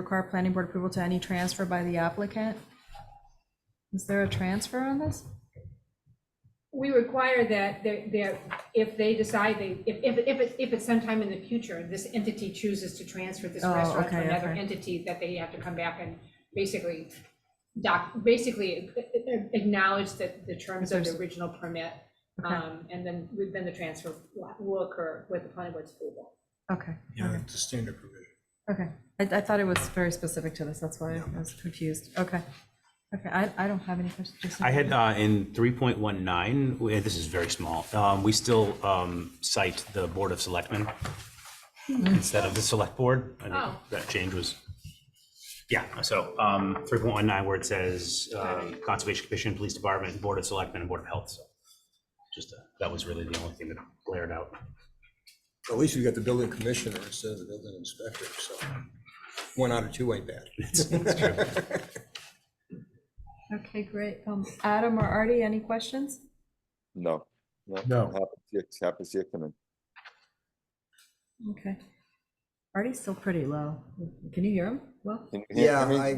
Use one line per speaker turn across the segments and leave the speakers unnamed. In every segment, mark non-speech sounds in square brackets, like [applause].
Require planning board approval to any transfer by the applicant? Is there a transfer on this?
We require that, they're- they're- if they decide they, if, if, if it's, if it's sometime in the future, this entity chooses to transfer this
Oh,
restaurant to
okay,
another
okay.
entity, that they have to come back and basically doc, basically uh, acknowledge that the terms of the
There's-
original permit.
Okay.
um, And then, then the transfer will- will occur with the planning board's approval.
Okay,
Yeah,
okay,
it's a standard provision.
okay. I, I thought it was very specific to this, that's why I was confused. Okay, okay, I, I don't have any questions. Jason?
I had uh, in three point one nine, this is very small, um, we still um, cite the Board of Selectmen instead of the Select Board. I think
Oh.
that change was, yeah, so um, three point one nine where it says um, Conservation Commission, Police Department, Board of Selectmen, and Board of Health. So Just, uh, that was really the only thing that glared out. [laughs]
At least we got the building commissioner instead of the building inspector, so one out of two ain't bad.
Okay, great. Um, Adam or Artie, any questions?
No.
No.
Happy to see it- happy to see it coming.
Okay. Artie's still pretty low. Can you hear him? Well,
Can you hear
Yeah,
me?
I,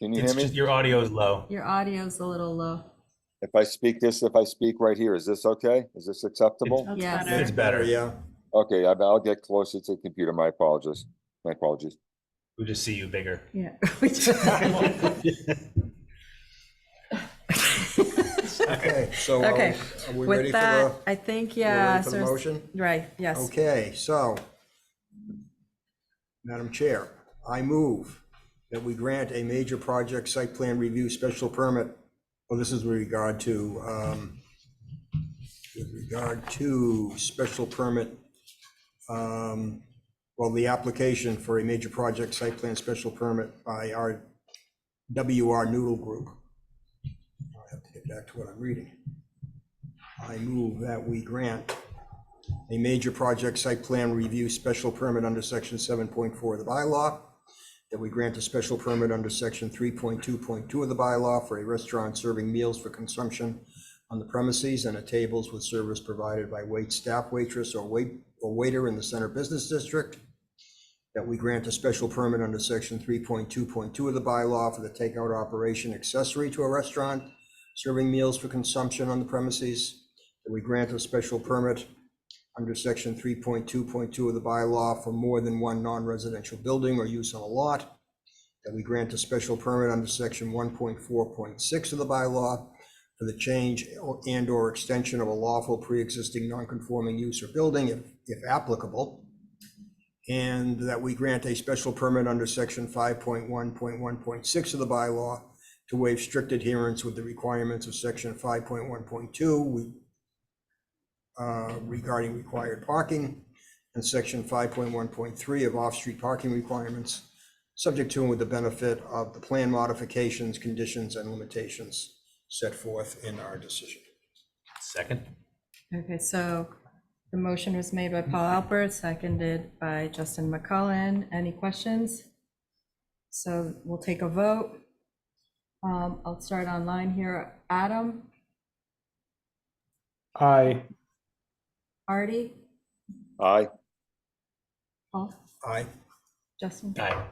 Can you
It's
hear
just,
me?
your audio is low.
your audio's a little low.
If I speak this, if I speak right here, is this okay? Is this acceptable?
Yes.
It's
[laughs]
better.
yeah,
Okay, I- I'll get closer to the computer. My apologies. My apologies.
We just see you bigger.
Yeah. [laughs] We just-
okay, so are
Okay.
we- are we ready
With
for the,
that, I think,
we're
yeah.
ready
so
for the
it's-
motion?
Right, yes.
Okay, so, Madam Chair, I move that we grant a major project site plan review special permit. Well, this is with regard to, um, with regard to special permit, um, well, the application for a major project site plan special permit by our WR Noodle Group. I have to get back to what I'm reading. I move that we grant a major project site plan review special permit under section seven point four of the bylaw, that we grant a special permit under section three point two point two of the bylaw for a restaurant serving meals for consumption on the premises and at tables with service provided by wait staff waitress or wait, or waiter in the center business district, that we grant a special permit under section three point two point two of the bylaw for the takeout operation accessory to a restaurant serving meals for consumption on the premises, that we grant a special permit under section three point two point two of the bylaw for more than one non-residential building or use on a lot, that we grant a special permit under section one point four point six of the bylaw for the change or- and or extension of a lawful pre-existing non-conforming use or building, if, if applicable, and that we grant a special permit under section five point one point one point six of the bylaw to waive strict adherence with the requirements of section five point one point two. We uh, regarding required parking and section 5.1.3 of off-street parking requirements, subject to and with the benefit of the plan modifications, conditions, and limitations set forth in our decision.
Second?
Okay, so the motion was made by Paul Alpert, seconded by Justin McCullen. Any questions? So we'll take a vote. Um, I'll start online here. Adam,
Aye.
Artie,
Aye.
Paul,
Aye.
Justin?
Aye.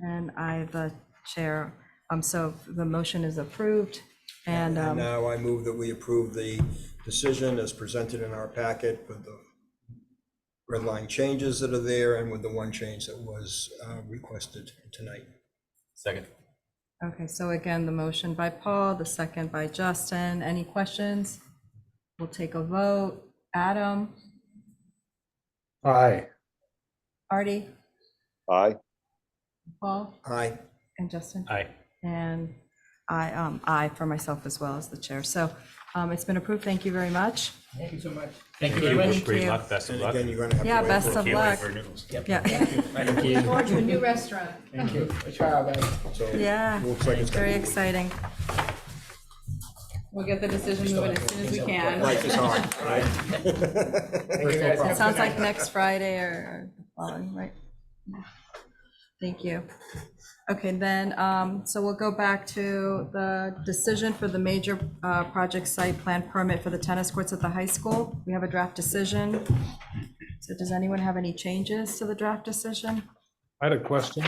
And I, the chair, um, so the motion is approved, and,
And
um,
now I move that we approve the decision as presented in our packet with the red line changes that are there and with the one change that was uh, requested tonight.
Second.
okay, so again, the motion by Paul, the second by Justin, any questions? We'll take a vote, Adam,
Aye.
Artie,
Aye.
Paul,
Aye.
and Justin?
Aye.
And I, um, I for myself as well as the chair, so, um, it's been approved, thank you very much.
Thank
you very much.
Great
Thank
luck, best of
And
luck.
again, you're going to have to
Yeah,
wait
best
for-
of
Can't wait
luck,
for noodles.
yeah,
Forward to a new restaurant.
so
[laughs]
it
yeah,
Looks like it's going
very
to be.
exciting.
We'll get the decision moving as soon as we can.
Life is hard, right? [laughs]
It sounds like next Friday or the following, right? Thank you. Okay, then, um, so we'll go back to the decision for the major, uh, project site plan permit for the tennis courts at the high school. We have a draft decision. So does anyone have any changes to the draft decision?
I had a question.